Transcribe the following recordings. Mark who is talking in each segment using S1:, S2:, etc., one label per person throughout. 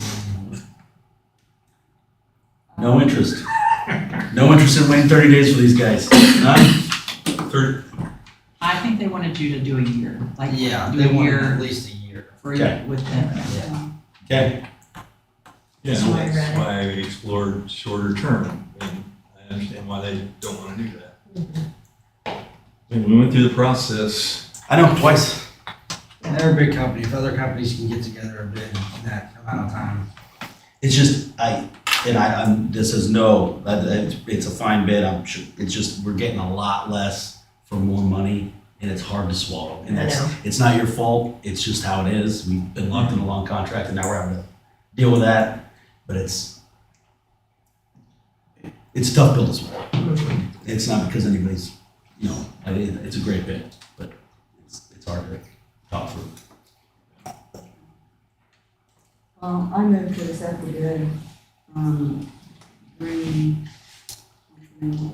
S1: Mm-hmm. No interest. No interest in waiting 30 days for these guys. None?
S2: Third,
S3: I think they wanted you to do a year, like, do
S4: Yeah,
S3: a
S4: they want
S3: year
S4: at least a year.
S3: for,
S1: Okay.
S3: with them.
S2: yeah,
S1: Okay.
S5: That's why I
S2: that's
S5: read it.
S2: why we explored shorter term, and I understand why they don't want to do that. And we went through the process,
S1: I know, twice.
S4: And they're a big company, if other companies can get together a bid in that amount of time.
S1: It's just, I, and I, I'm, this is no, that, that- it's a fine bid, I'm sure, it's just, we're getting a lot less for more money, and it's hard to swallow. And
S5: I
S1: that's,
S5: know.
S1: it's not your fault, it's just how it is, we've been locked in a long contract, and now we're having to deal with that, but it's, it's a tough bill to swallow.
S5: Mm-hmm.
S1: It's not because anybody's, you know, I mean, it's a great bid, but it's, it's hard to talk through.
S6: Um, I move to accept the bid, um, green, which one?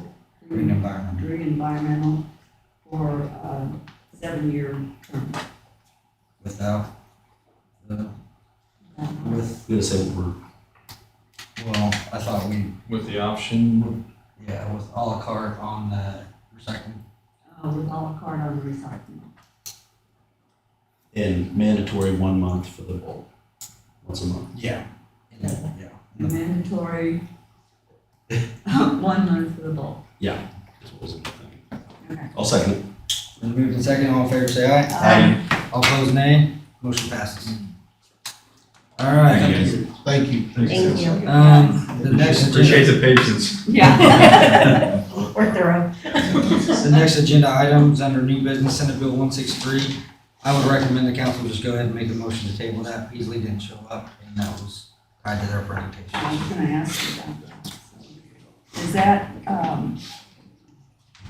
S4: Green environment.
S6: green environmental for a seven-year term.
S4: Without, the-
S6: uh,
S4: with,
S1: I'm gonna say what we're,
S4: well, I thought we,
S2: with the option,
S4: yeah, with à la carte on the recycling.
S6: Uh, with all la carte on recycling.
S1: in mandatory one month for the bowl, once a month.
S4: Yeah. Yeah.
S6: Mandatory, one month for the bulk. Okay.
S1: I'll second it.
S4: Then move to second, all in favor, say aye.
S1: Aye.
S4: All opposed, nay. Motion passes. All right.
S1: Thank
S4: you. Thank you.
S5: Thank you.
S4: Um, the next.
S2: appreciate the patience.
S5: Yeah. We're thorough.
S4: The next agenda item is under new business, Senate Bill one six three. I would recommend the council just go ahead and make a motion to table that. Beasley didn't show up, and that was tied to their
S6: I
S4: presentation.
S6: was gonna ask you about that. Is that, um,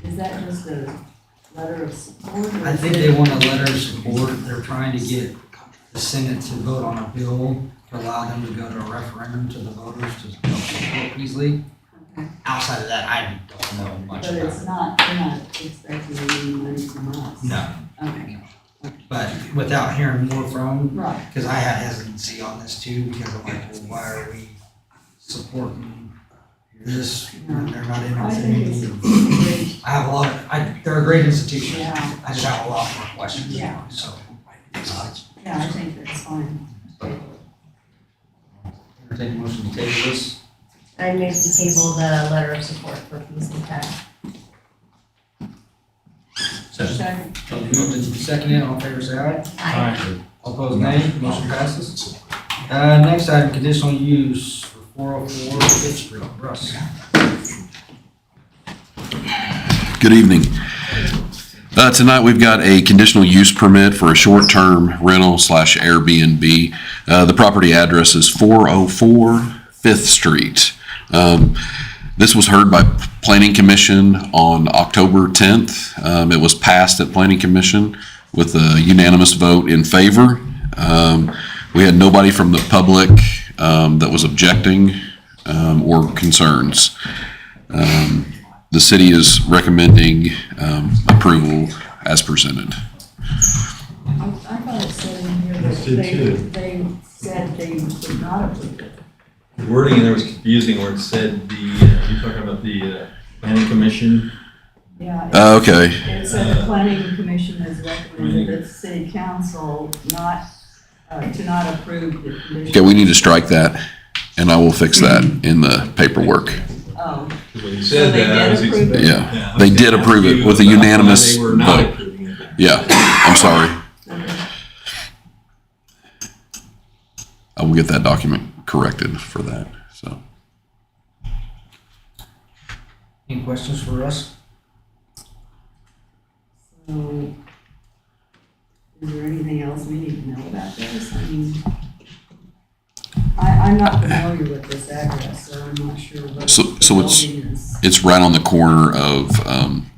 S6: is that just a letter of support? or
S4: I
S6: is
S4: think
S6: it-
S4: they want a letter of support. They're trying to get the Senate to vote on a bill to allow them to go to a referendum to the voters to help support Beasley.
S6: Okay.
S4: Outside of that, I don't know much
S6: But
S4: about it.
S6: it's not, they're not expecting any money from us.
S4: No,
S6: Okay,
S4: but without hearing more from
S6: right,
S4: Because I had hesitancy on this too, because I'm like, well, why are we supporting this when they're not
S6: I think
S4: interested?
S6: it's great,
S4: I have a lot, of- I, they're a great institution.
S6: Yeah.
S4: I just have a lot more questions, than
S6: Yeah.
S4: you, so. uh,
S6: yeah, I think that's fine.
S4: Entertain a motion to table this.
S5: I move to table the letter of support for Beasley Tech.
S6: Second.
S4: Moved and seconded, all in favor say aye.
S5: Aye.
S4: All opposed nay, motion passes. Uh, next item, conditional use for four oh four Fifth Street, Russ.
S7: Good evening. Uh, Tonight, we've got a conditional use permit for a short-term rental slash Airbnb. Uh, The property address is 404 Fifth Street. Um, This was heard by Planning Commission on October 10th. Um, It was passed at Planning Commission with a unanimous vote in favor. Um, We had nobody from the public um, that was objecting um, or concerns. Um, The city is recommending um, approval as presented.
S6: I, I thought it said in here
S2: Yes,
S6: that
S2: did
S6: they,
S2: too.
S6: they said they did not approve it.
S2: The wording in there was confusing where it said the, uh, you're talking about the uh, planning commission.
S6: Yeah, it-
S7: Uh, Okay,
S6: it said the planning commission has recommended that the city council not, uh, to not approve the condition.
S7: okay, we need to strike that, and I will fix that in the paperwork.
S6: Oh,
S2: Because when you
S6: So
S2: said
S6: they
S2: that, I
S6: did
S2: was
S6: approve it?
S2: expecting.
S7: Yeah. They did approve it with a unanimous
S2: They were not
S7: vote.
S2: approving it.
S7: Yeah, I'm sorry.
S6: okay,
S7: I will get that document corrected for that, so.
S4: Any questions for Russ?
S6: so. Is there anything else we need to know about this? I mean, I, I'm not familiar with this address, so I'm not sure what
S7: So-
S6: the
S7: so it's-
S6: building is.
S7: It's right on the corner of, um,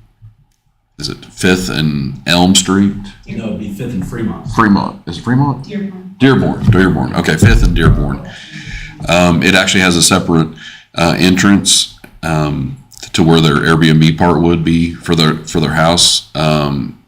S7: is it Fifth and Elm Street?
S1: No, it'd be Fifth and Fremont.
S7: Fremont, is it Fremont?
S5: Your
S7: Dearborn, Dearborn, okay, Fifth and Dearborn. Um, it actually has a separate, uh, entrance, um, to where their Airbnb part would be for their, for their house. Um,